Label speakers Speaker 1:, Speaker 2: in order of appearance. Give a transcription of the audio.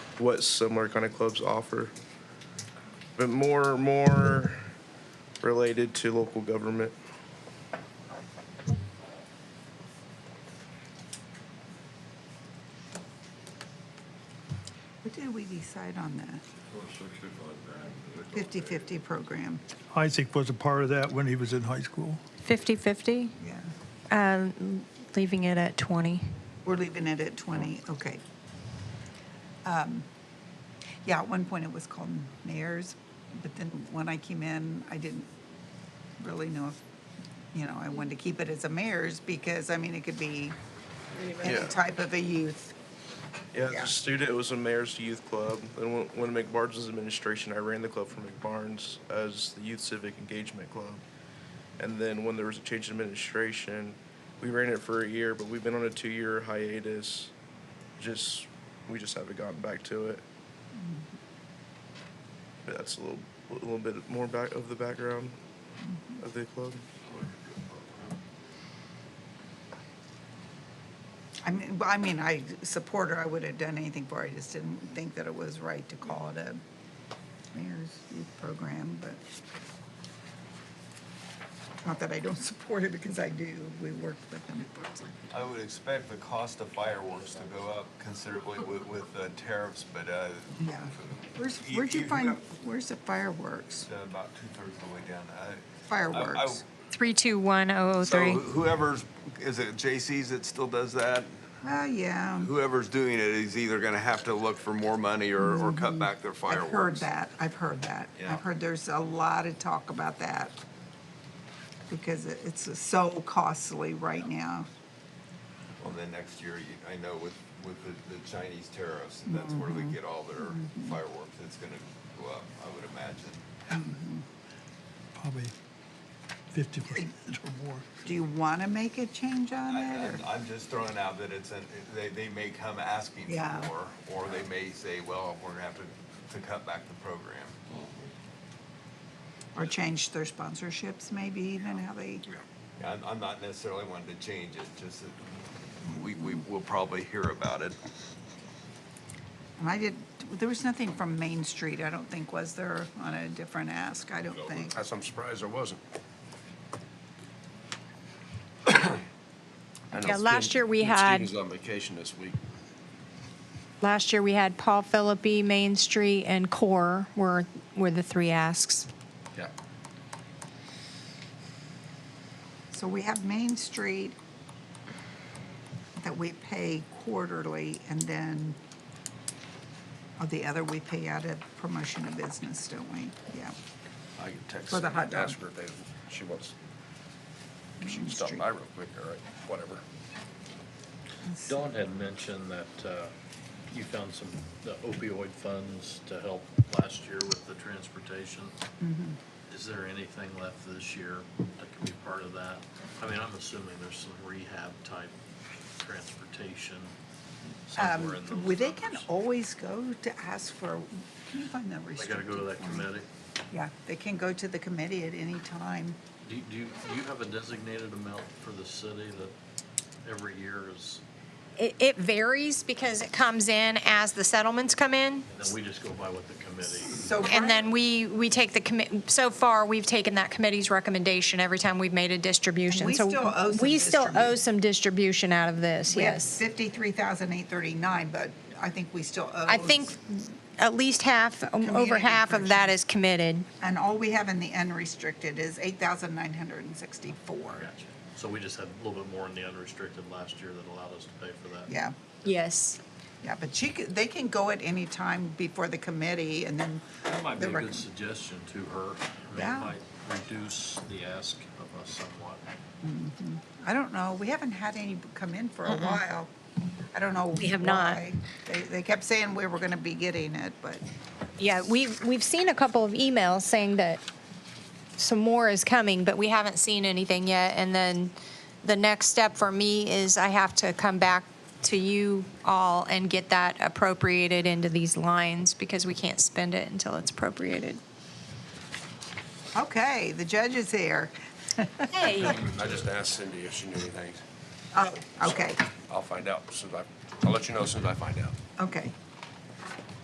Speaker 1: what similar kind of clubs offer, but more more related to local government.
Speaker 2: What did we decide on the 50-50 program?
Speaker 3: Isaac was a part of that when he was in high school.
Speaker 4: 50/50,
Speaker 2: Yeah,
Speaker 4: um, leaving it at 20.
Speaker 2: we're leaving it at 20, okay. Um, Yeah, at one point it was called mayors, but then when I came in, I didn't really know if, you know, I wanted to keep it as a mayor's because, I mean, it could be any
Speaker 1: Yeah.
Speaker 2: type of a youth.
Speaker 1: Yeah, as
Speaker 2: Yeah.
Speaker 1: a student, it was a mayor's youth club. And when, when McBarnes was administration, I ran the club for McBarnes as the youth civic engagement club. And then when there was a change in administration, we ran it for a year, but we've been on a two-year hiatus. Just we just haven't gotten back to it. But that's a little, a little bit more back of the background of the club.
Speaker 2: I mean, well, I mean, I support her, I would have done anything for her, I just didn't think that it was right to call it a mayor's youth program, but not that I don't support it, because I do, we work with them.
Speaker 5: I would expect the cost of fireworks to go up considerably with, with uh, tariffs, but, uh,
Speaker 2: Yeah. Where's,
Speaker 5: You-
Speaker 2: where'd you
Speaker 5: you-
Speaker 2: find, where's the fireworks?
Speaker 5: it's about two-thirds of the way down. I-
Speaker 2: Fireworks.
Speaker 4: 321003.
Speaker 5: So whoever's, is it J.C.'s that still does that?
Speaker 2: Well, yeah,
Speaker 5: Whoever's doing it is either gonna have to look for more money or, or cut back their
Speaker 2: Mm-hmm. I've
Speaker 5: fireworks.
Speaker 2: heard that, I've heard that.
Speaker 5: Yeah.
Speaker 2: I've heard there's a lot of talk about that, because it- it's so costly right now.
Speaker 5: Well, then next year, you- I know with, with the, the Chinese tariffs, and that's where they
Speaker 2: Mm-hmm.
Speaker 5: get all their fireworks. It's gonna go up, I would imagine.
Speaker 3: Probably 50% or more.
Speaker 2: Do you want to make a change on
Speaker 5: I-
Speaker 2: it, or?
Speaker 5: I'm- I'm just throwing out that it's, an- they, they may come asking
Speaker 2: Yeah.
Speaker 5: for more, or they may say, well, we're gonna have to, to cut back the program.
Speaker 2: Or change their sponsorships, maybe even how they,
Speaker 5: I'm, I'm not necessarily wanting to change it, just that we, we will probably hear about it.
Speaker 2: and I did, there was nothing from Main Street, I don't think, was there, on a different ask, I don't think.
Speaker 6: That's, I'm surprised there wasn't. I know
Speaker 4: Yeah,
Speaker 6: it's
Speaker 4: last
Speaker 6: been-
Speaker 4: year we
Speaker 6: Steve
Speaker 4: had-
Speaker 6: was on vacation this week.
Speaker 4: Last year, we had Paul Philippi, Main Street, and Core were, were the three asks.
Speaker 6: Yeah.
Speaker 2: So we have Main Street that we pay quarterly, and then, oh, the other we pay out of promotion of business, don't we? Yeah.
Speaker 6: I can text
Speaker 2: For the
Speaker 6: her
Speaker 2: hot
Speaker 6: and ask
Speaker 2: dog.
Speaker 6: her if they, she wants, she
Speaker 2: Main
Speaker 6: can stop
Speaker 2: Street.
Speaker 6: by real quick, all right, whatever.
Speaker 7: Dawn had mentioned that uh, you found some the opioid funds to help last year with the transportation.
Speaker 2: Mm-hmm.
Speaker 7: Is there anything left this year that can be part of that? I mean, I'm assuming there's some rehab type transportation somewhere in those
Speaker 2: Um, well, They can
Speaker 7: numbers.
Speaker 2: always go to ask for, can you find that
Speaker 7: They
Speaker 2: restricted?
Speaker 7: gotta go to that
Speaker 2: form?
Speaker 7: committee.
Speaker 2: Yeah, they can go to the committee at any time.
Speaker 7: Do you, do you do you have a designated amount for the city that every year is,
Speaker 4: It, it varies because it comes in as the settlements come in.
Speaker 7: and then we just go by what the committee?
Speaker 2: So
Speaker 4: And then we, we take the commit, so far, we've taken that committee's recommendation every time we've made a distribution.
Speaker 2: We
Speaker 4: So
Speaker 2: still owe some
Speaker 4: We still owe
Speaker 2: distribution.
Speaker 4: some distribution out of this,
Speaker 2: We have
Speaker 4: yes.
Speaker 2: Fifty-three thousand eight thirty-nine, but I think we still owe.
Speaker 4: I think at least half, um, over
Speaker 2: Community
Speaker 4: half of that
Speaker 2: corrections.
Speaker 4: is committed.
Speaker 2: And all we have in the unrestricted is eight thousand nine hundred and sixty-four.
Speaker 7: Gotcha. So we just had a little bit more in the unrestricted last year that allowed us to pay for that?
Speaker 2: Yeah,
Speaker 4: Yes.
Speaker 2: yeah, but she could, they can go at any time before the committee and then.
Speaker 7: That might be
Speaker 2: the
Speaker 7: a
Speaker 2: rec-
Speaker 7: good suggestion to her. I mean,
Speaker 2: Yeah.
Speaker 7: It might reduce the ask of us somewhat.
Speaker 2: I don't know, we haven't had any come in for a while. I don't know.
Speaker 4: We have not.
Speaker 2: why. They, they kept saying we were gonna be getting it, but
Speaker 4: Yeah, we've, we've seen a couple of emails saying that some more is coming, but we haven't seen anything yet. And then the next step for me is I have to come back to you all and get that appropriated into these lines because we can't spend it until it's appropriated.
Speaker 2: okay, the judge is here.
Speaker 4: Hey.
Speaker 6: I just asked Cindy if she knew anything.
Speaker 2: Oh, okay,
Speaker 6: I'll find out soon as I, I'll let you know as soon as I find out.
Speaker 2: okay.